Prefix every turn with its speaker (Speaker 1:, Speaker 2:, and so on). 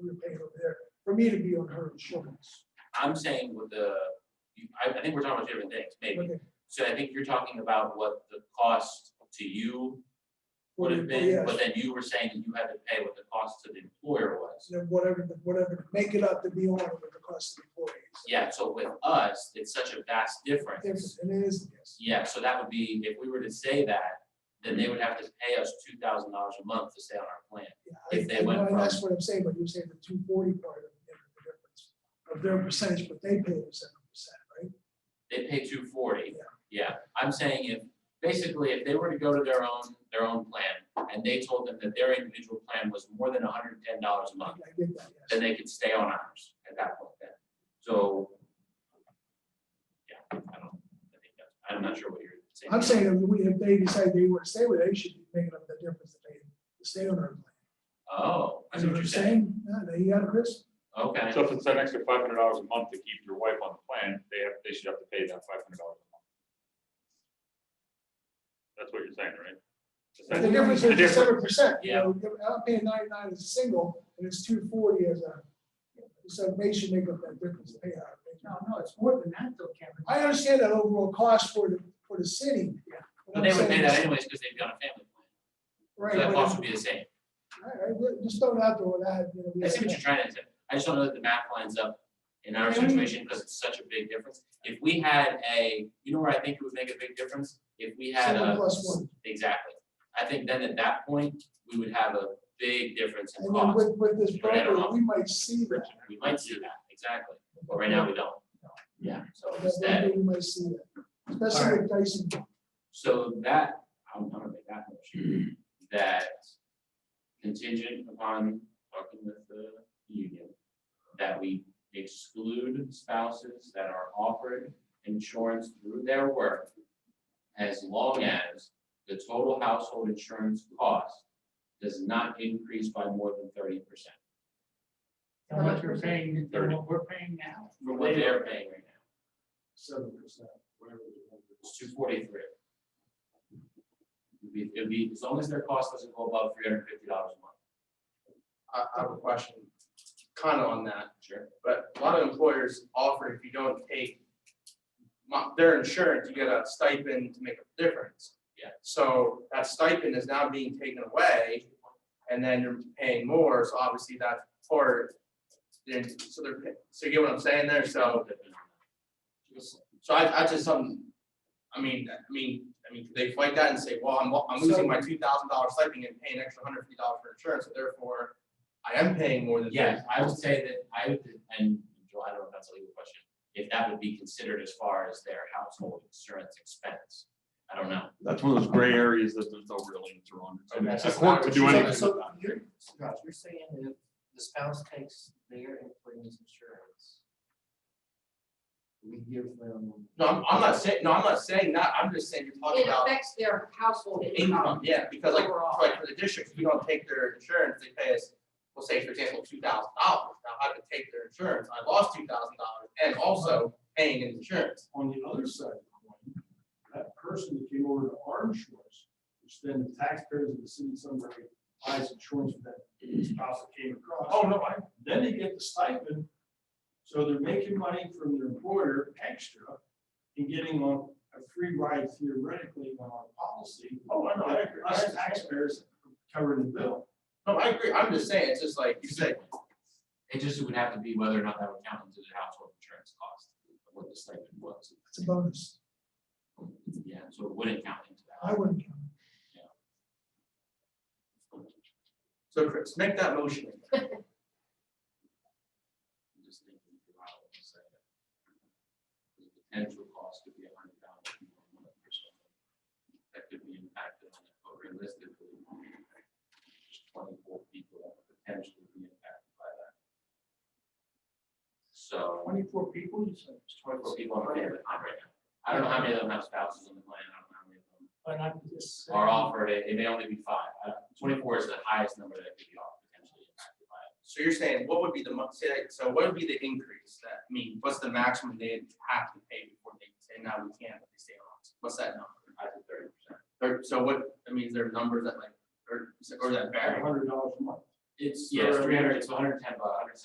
Speaker 1: we were paying over there, for me to be on her insurance.
Speaker 2: I'm saying with the, you- I, I think we're talking about different things, maybe.
Speaker 1: Okay.
Speaker 2: So I think you're talking about what the cost to you would have been,
Speaker 1: Yes.
Speaker 2: but then you were saying that you had to pay what the cost to the employer was.
Speaker 1: So whatever, the- whatever, make it up to be on with the cost of employees.
Speaker 2: Yeah, so with us, it's such a vast difference.
Speaker 1: Yes, And it is, yes.
Speaker 2: Yeah, so that would be, if we were to say that, then they would have to pay us two thousand dollars a month to stay on our plan.
Speaker 1: Yeah,
Speaker 2: If they
Speaker 1: I- I
Speaker 2: went
Speaker 1: know, and That's
Speaker 2: from-
Speaker 1: what I'm saying, but you're saying the two forty part of the difference of their percentage, but they pay the seven percent, right?
Speaker 2: They pay two forty. Yeah, I'm saying if, basically, if they were to go to their own, their own plan, and they told them that their individual plan was more than hundred and ten dollars a month,
Speaker 1: I get that, yes.
Speaker 2: then they could stay on ours at that point then. So. Yeah, I don't, I think that's, I'm not sure what you're saying.
Speaker 1: I'm saying if we, if they decide they want to stay with it, they should be making up the difference that they stay on our plan.
Speaker 2: Oh, I
Speaker 1: Is
Speaker 2: see
Speaker 1: that
Speaker 2: what you're saying.
Speaker 1: No, no, you got it, Chris?
Speaker 2: Okay.
Speaker 3: So if it's an extra five hundred dollars a month to keep your wife on the plan, they have, they should have to pay that five hundred dollars a month. That's what you're saying, right?
Speaker 1: The difference
Speaker 3: The
Speaker 1: is
Speaker 3: difference.
Speaker 1: seven percent, you
Speaker 2: Yeah.
Speaker 1: know, if I'm paying ninety-nine as a single, and it's two forty as a, so they should make up that difference, they are.
Speaker 4: No, no, it's more than that though, Kevin.
Speaker 1: I understand that overall cost for the, for the city.
Speaker 4: Yeah.
Speaker 1: What
Speaker 2: But
Speaker 1: I'm
Speaker 2: they would
Speaker 1: saying
Speaker 2: pay
Speaker 1: is-
Speaker 2: that anyways, because they'd be on a family plan,
Speaker 1: Right.
Speaker 2: so that
Speaker 1: but
Speaker 2: cost would be the same.
Speaker 1: All right, well, just throw it out there without, you know. we
Speaker 2: I see
Speaker 1: have-
Speaker 2: what you're trying to say, I just don't know that the math lines up in our situation, because it's such a big difference. If we had a, you know where I think it would make a big difference? If we had
Speaker 1: Seven
Speaker 2: a.
Speaker 1: plus one.
Speaker 2: Exactly, I think then at that point, we would have a big difference in
Speaker 1: And then
Speaker 2: cost,
Speaker 1: with, with this
Speaker 2: Sure, I don't
Speaker 1: broker,
Speaker 2: know.
Speaker 1: we might see that.
Speaker 2: we might see that, exactly, but right now we don't. Yeah, so
Speaker 1: That
Speaker 2: instead,
Speaker 1: broker, We might see that, especially with Dyson.
Speaker 2: So that, I'm gonna make that motion, that contingent upon talking with the union, that we exclude spouses that are offered insurance through their work as long as the total household insurance cost does not increase by more than thirty percent
Speaker 4: How much we're paying, than
Speaker 3: Thirty.
Speaker 4: what we're paying now.
Speaker 2: from what they're paying right now.
Speaker 1: Seven percent, whatever.
Speaker 2: It's two forty-three. It'd be, it'd be, as long as their cost doesn't go above three hundred fifty dollars a month.
Speaker 5: I, I have a question, kind of on that,
Speaker 2: Sure.
Speaker 5: but a lot of employers offer if you don't take mo- their insurance, you get a stipend to make up the difference.
Speaker 2: Yeah.
Speaker 5: So that stipend is now being taken away, and then you're paying more, so obviously that's part. Then, so they're, pay- so you get what I'm saying there, so, so I, I just, um, I mean, I mean, I mean, could they fight that and say, well, I'm, I'm
Speaker 1: So-
Speaker 5: losing my two thousand dollar stipend and paying an extra hundred fifty dollars for insurance, so therefore I am paying more than.
Speaker 2: Yeah, I would say that I would, and Joel, I don't know if that's a legal question, if that would be considered as far as their household insurance expense. I don't know.
Speaker 3: That's one of those gray areas that there's no real answer on. I mean, It's a
Speaker 5: That's
Speaker 3: court
Speaker 5: not
Speaker 3: to
Speaker 5: what
Speaker 3: do
Speaker 5: she said.
Speaker 3: anything
Speaker 4: So
Speaker 3: with that.
Speaker 4: you're, Scott, you're saying if the spouse takes their employee's insurance, we give them.
Speaker 5: No, I'm, I'm not saying, no, I'm not saying that, I'm just saying you're talking
Speaker 6: It
Speaker 5: about
Speaker 6: affects their household
Speaker 5: income,
Speaker 6: income.
Speaker 5: yeah, because like,
Speaker 6: Overall.
Speaker 5: like for the district, if you don't take their insurance, they pay us, we'll say, for example, two thousand dollars. Now, I could take their insurance, I lost two thousand dollars and also paying in insurance.
Speaker 7: On the other side of the coin, that person that came over to our insurance, which then the taxpayers of the city somewhere buys insurance for that spouse that came across.
Speaker 5: Oh, no, I,
Speaker 7: Then they get the stipend, so they're making money from their employer extra and getting on a free ride theoretically on our policy.
Speaker 5: oh, I know, I agree, I,
Speaker 7: Us taxpayers covering the bill.
Speaker 5: no, I agree, I'm just saying, it's just like you said,
Speaker 2: It just would have to be whether or not that would count into the household insurance cost, of what the stipend was.
Speaker 1: It's a bonus,
Speaker 2: Yeah, so it wouldn't count into
Speaker 1: I
Speaker 2: that.
Speaker 1: wouldn't count. it.
Speaker 5: so Chris, make that motion.
Speaker 2: I'm just thinking through how I would say that. The potential cost could be a hundred dollars more than one percent. That could be impacted on it, but realistically, there's twenty-four people that could potentially be impacted by that. So,
Speaker 4: Twenty-four people, you said.
Speaker 2: twenty-four people on the plan right now. I don't know how many of them have spouses on the plan, I don't know how many of them
Speaker 4: But I'm just. saying-
Speaker 2: are offered, it It may only be five. I don't- Twenty-four is the highest number that could be offered, potentially impacted by it.
Speaker 5: So you're saying, what would be the month, say, that- so what would be the increase that, I mean, what's the maximum they have to pay before they say, now we can't, but they stay on? What's that number?
Speaker 2: I think thirty percent.
Speaker 5: Or, so what, I mean, is there numbers that like, or, or that vary?
Speaker 7: Hundred dollars a month.
Speaker 2: It's, yeah, it's
Speaker 5: For-
Speaker 2: three hundred, it's hundred and ten, but hundred